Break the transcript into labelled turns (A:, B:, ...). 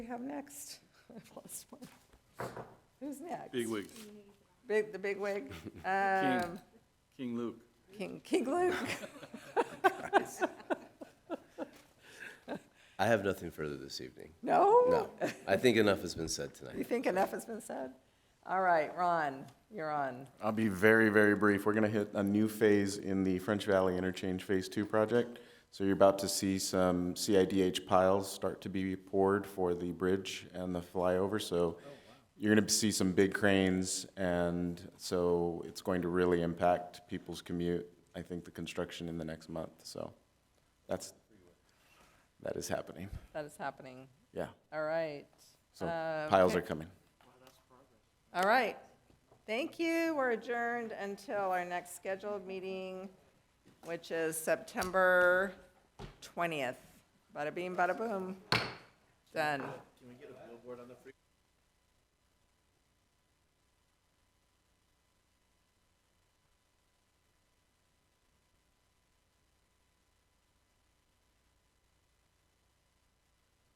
A: have next? I've lost one. Who's next?
B: Big wig,
A: Big, the big wig? Um,
B: King Luke.
A: King, King Luke.
C: I have nothing further this evening.
A: No?
C: No, I think enough has been said
A: You
C: tonight.
A: think enough has been said? All right, Ron, you're on.
D: I'll be very, very brief. We're going to hit a new phase in the French Valley Interchange Phase Two project. So you're about to see some CIDH piles start to be poured for the bridge and the flyover. So you're going to see some big cranes, and so it's going to really impact people's commute. I think the construction in the next month. So that's that is happening.
A: That is happening.
D: Yeah.
A: All right.
D: So
A: Um,
D: piles are coming.
A: All right. Thank you. We're adjourned until our next scheduled meeting, which is September 20th. Bada bing, bada boom. Done.